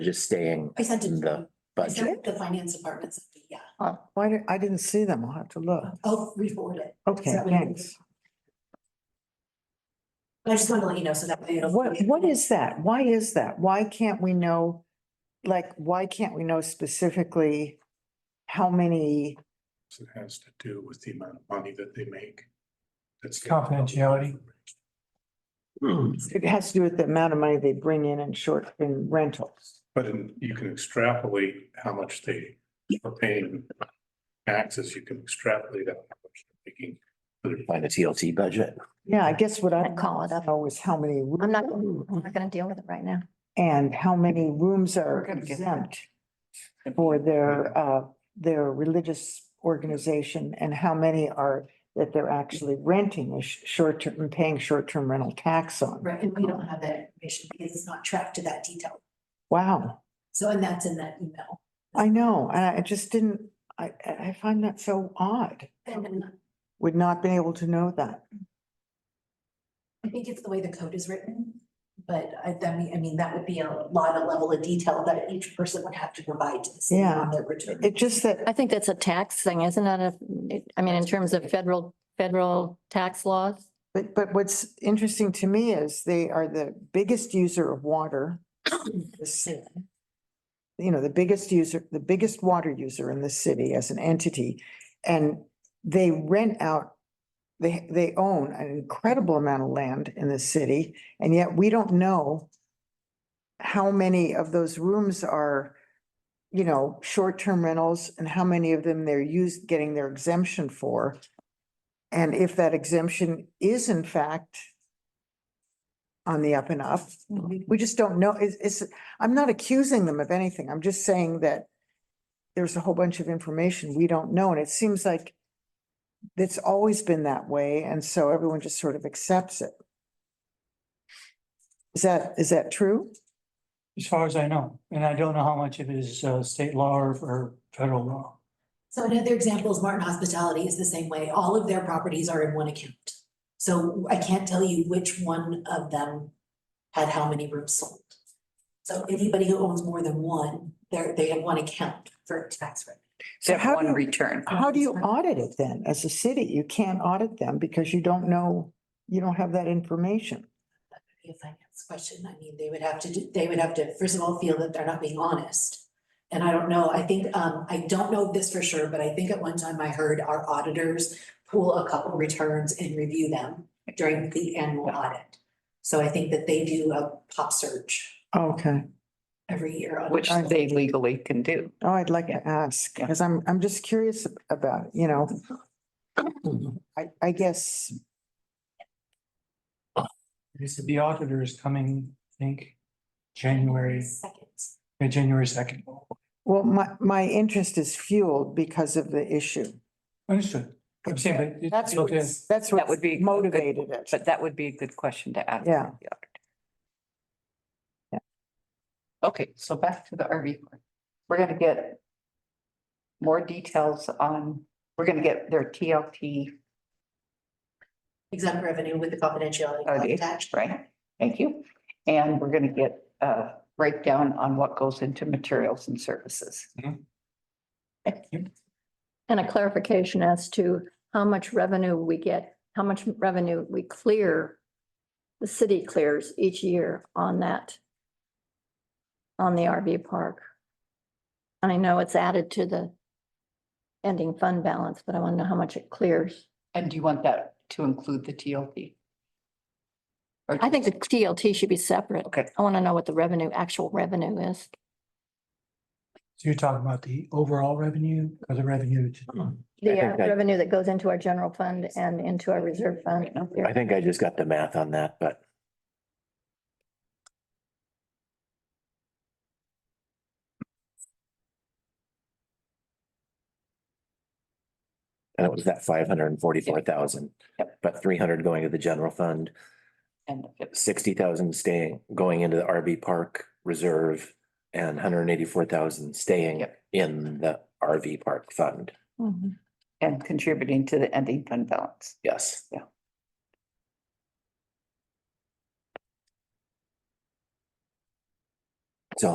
just staying I sent it in to the them. I budget. sent it to the finance department, so, yeah. Uh, why, di- I didn't see them. I'll have to look. I'll re-forward it. Okay, that what you- thanks. But I just wanted to let you know, so that way it'll. What, what is that? Why is that? Why can't we know? Like, why can't we know specifically how many? It has to do with the amount of money that they make. That's. Confidentiality. It has to do with the amount of money they bring in in short, in rentals. But in- you can extrapolate how much they are paying taxes, you can extrapolate out how much they're making. By the TLT budget. Yeah, I guess what I. I'd call it up. Know is how many. rooms I'm not, I'm not gonna deal with it right now. And how many rooms We're are gonna get exempt for their, uh, their religious organization and how many are that they're actually renting a short-term, and paying short-term rental tax on? Right, and we don't have that information because it's not tracked to that detail. Wow. So, and that's in that email. I know, and I I just didn't, I, I I find that so odd. And then Would not been able to know that. I think it's the way the code is written, but I, I mean, I mean, that would be a lot of level of detail that each person would have to provide to the city Yeah. on their return. It just that, I think that's a tax thing, isn't it? If- I mean, in terms of federal, federal tax laws. but, but what's interesting to me is they are the biggest user of water. in the city. You know, the biggest user, the biggest water user in the city as an entity. And they rent out, they, they own an incredible amount of land in the city, and yet we don't know how many of those rooms are, you know, short-term rentals and how many of them they're used, getting their exemption for. And if that exemption is in fact on the up and up, we just don't know. It's, it's, I'm not accusing them of anything. I'm just saying that there's a whole bunch of information we don't know, and it seems like it's always been that way, and so everyone just sort of accepts it. Is that, is that true? As far as I know, and I don't know how much of it is uh, state law or- or federal law. So another example is Martin Hospitality is the same way. All of their properties are in one account. So I can't tell you which one of them had how many rooms sold. So anybody who owns more than one, they're, they have one account for tax rate. So how do, you- return. how do you audit it then? As a city, you can't audit them because you don't know, you don't have that information. be a finance question. I mean, they would have to, do- they would have to, first of all, feel that they're not being honest. And I don't know, I think, um, I don't know this for sure, but I think at one time I heard our auditors pull a couple returns and review them during the annual audit. So I think that they do a pop search Okay. every year. on- Which they legally can do. Oh, I'd like to ask, Yeah. because I'm, I'm just curious ab- about, it, you know. I, I guess, This is the auditor is coming, I think, January, Seconds. yeah, January second. well, my, my interest is fueled because of the issue. Understood. I'm saying, but it's- That's it'll what's- That's That what would be. a good- motivated it. But that would be a good question to ask. Yeah. the auditor. Yeah. Okay, so back to the RV. park. We're gonna get more details on, we're gonna get their TLT, Exempt revenue with the confidentiality Oh, clause they- attached. right? Thank you. And we're gonna get a breakdown on what goes into materials and services. And a clarification as to how much revenue we get, how much revenue we clear, the city clears each year on that, on the RV park. I know it's added to the ending fund balance, but I want to know how much it clears. And do you want that to include the TLT? Or I think just- the TLT should be separate. Okay. I want to know what the revenue, actual revenue is. So you're talking about the overall revenue or the revenue to I The think uh, that- revenue that goes into our general fund and into our reserve fund. Right now. I think I just got the math on that, but and it was that five hundred and forty-four thousand, but three hundred going to the general fund, And if- sixty thousand staying, going into the RV park reserve and hundred and eighty-four thousand staying Yep. in the RV park fund. Mhm. and contributing to the ending fund balance. Yes. Yeah.